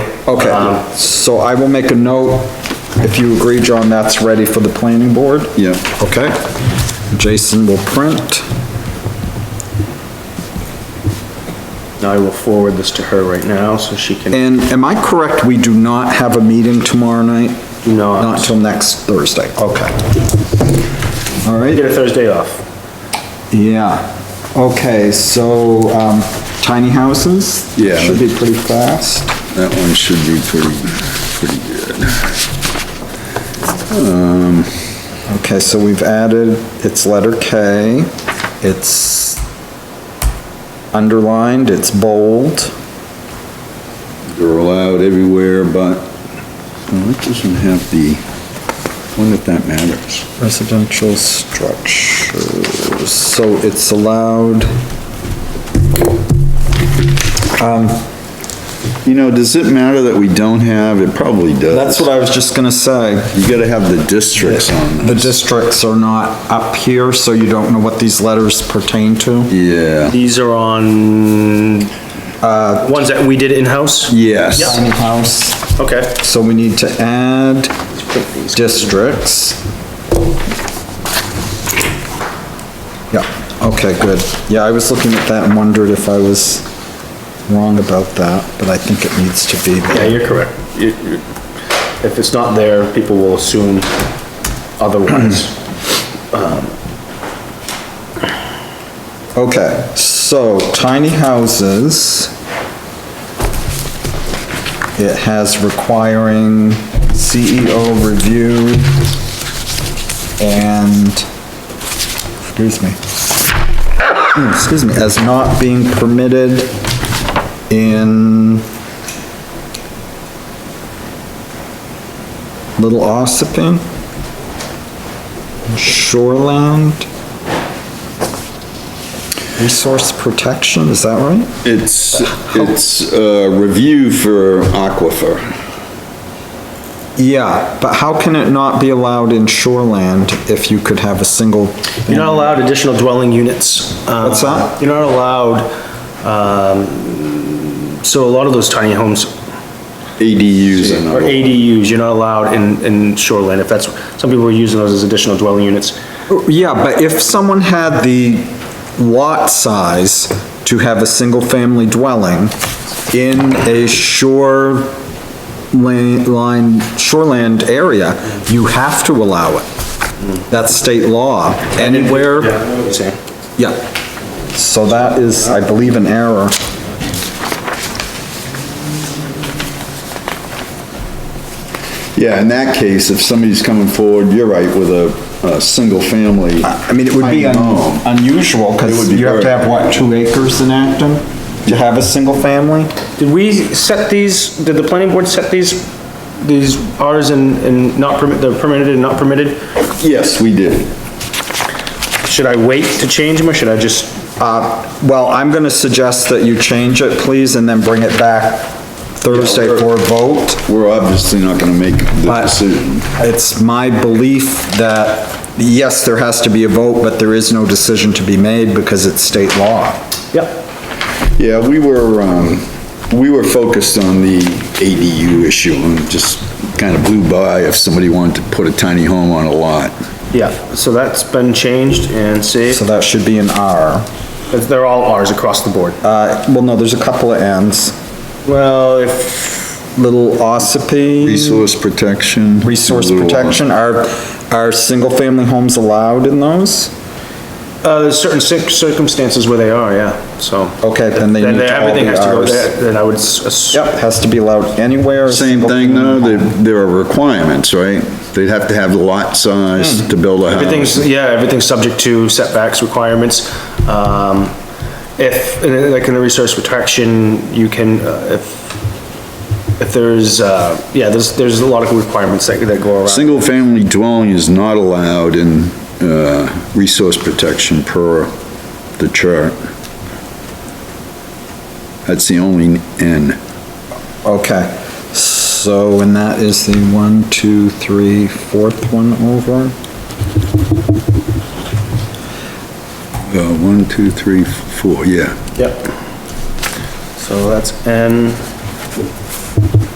Um, Okay, Um, so I will make a note, if you agree, John, that's ready for the planning board? Yeah. Okay. Jason will print. I will forward this to her right now, so she can, And am I correct, we do not have a meeting tomorrow night? Do Uh, not. Not till next Thursday, Oh. okay. All get right, a Thursday off. yeah. Okay, so, um, tiny houses? Yeah. Should be pretty fast. That one should be pretty, pretty good. Okay, so we've added, it's letter K, it's underlined, it's bold. They're allowed everywhere, but, well, it doesn't have the, when if that matters. Residential structures, so it's allowed, You know, does it matter that we don't have, it probably does. that's what I was just gonna say. You gotta have the districts on The this. districts are not up here, so you don't know what these letters pertain to? Yeah, These are on, Uh, ones that we did in-house? yes, Tiny house, Okay. so we need to add districts. Yeah, okay, good. Yeah, I was looking at that and wondered if I was wrong about that, but I think it needs to be Yeah, there. you're correct. You- you- If it's not there, people will assume otherwise. Mm-hmm. Okay, so tiny houses. It has requiring CEO review and, excuse me. Hmm, Excuse me, as not being permitted in Little Ossipin, Shoreland, Resource Protection, is that right? it's, it's a review for aquifer. Yeah, but how can it not be allowed in shoreland if you could have a single? You're not allowed additional dwelling units. uh, What's that? You're not allowed, um, so a lot of those tiny homes ADUs and or ADUs, you're not allowed in, in shoreline, if that's, some people are using those as additional dwelling units. Yeah, but if someone had the lot size to have a single-family dwelling in a shore la- line, shoreland area, you have to allow it. That's state law. Anywhere, Yeah, I know what you're saying. yeah. So that is, I believe, an error. Yeah, in that case, if somebody's coming forward, you're right, with a, a single family. I mean, it would be I un- know. unusual, It would because be you have to very- have, what, two acres in Acton? To have a single family? Did we set these, did the planning board set these, these Rs and, and not permit, the permitted and not permitted? Yes, we did. Should I wait to change them, or should I just, Uh, well, I'm gonna suggest that you change it, please, and then bring it back Thursday for a vote. We're obviously not gonna make the But decision. it's my belief that, yes, there has to be a vote, but there is no decision to be made because it's state law. yeah, Yeah, we were, um, we were focused on the ADU issue and just kinda blew by if somebody wanted to put a tiny home on a lot. yeah, so that's been changed and saved, So that should be an R. they're all Rs across the board. Uh, well, no, there's a couple of Ns. Well, if, Little Ossipee. Resource protection. resource little- protection, are, are single-family homes allowed in those? uh, there's certain cir- circumstances where they are, yeah, so. Okay, then they Then need to all everything be has to go Rs. there, then I would s- Yep, has to be allowed anywhere. Same thing though, there, there are requirements, right? They'd have to have lot Hmm. size to build a house. Everything's, yeah, everything's subject to setbacks requirements. Um, if, and then, like in the resource protection, you can, uh, if, if there's, uh, yeah, there's, there's a lot of requirements that, that go around. Single-family dwelling is not allowed in, uh, resource protection per the chart. That's the only N. Okay, so, and that is the one, two, three, fourth one over? Uh, one, two, three, four, yeah. Yep. So that's N.